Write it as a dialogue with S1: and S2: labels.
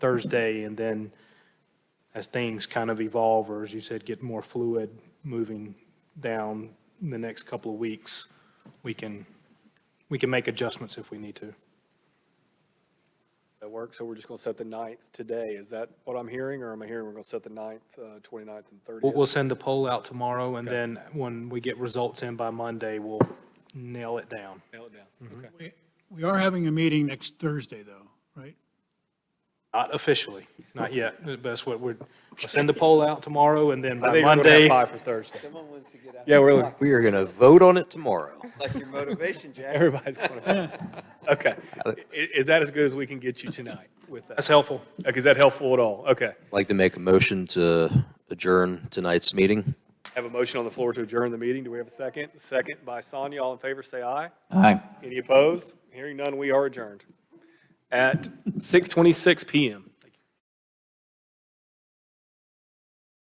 S1: Thursday, and then as things kind of evolve, or as you said, get more fluid moving down the next couple of weeks, we can, we can make adjustments if we need to.
S2: That works, so we're just gonna set the ninth today, is that what I'm hearing, or am I hearing we're gonna set the ninth, uh, twenty-ninth and
S1: We'll,
S2: thirtieth?
S1: we'll send the poll out tomorrow, and then when we get results in by Monday, we'll nail it down.
S2: Nail it
S1: Mm-hmm.
S2: down, okay.
S3: We- We are having a meeting next Thursday, though, right?
S1: Not officially, not yet, but that's what we're, we'll send the poll out tomorrow, and then
S2: I
S1: by
S2: think we're gonna have
S1: Monday,
S2: five for Thursday.
S4: Someone wants to get out.
S2: Yeah, we're,
S5: We are going to vote on it tomorrow.
S4: Like your motivation, Jack.
S2: everybody's gonna, okay. I- is that as good as we can get you tonight with that?
S1: that's helpful.
S2: Okay, is that helpful at all? Okay.
S5: I'd like to make a motion to adjourn tonight's meeting.
S2: Have a motion on the floor to adjourn the meeting. Do we have a second? Second by Sonia. All in favor, say aye.
S6: Aye.
S2: Any opposed? Hearing none, we are adjourned at 6:26 PM.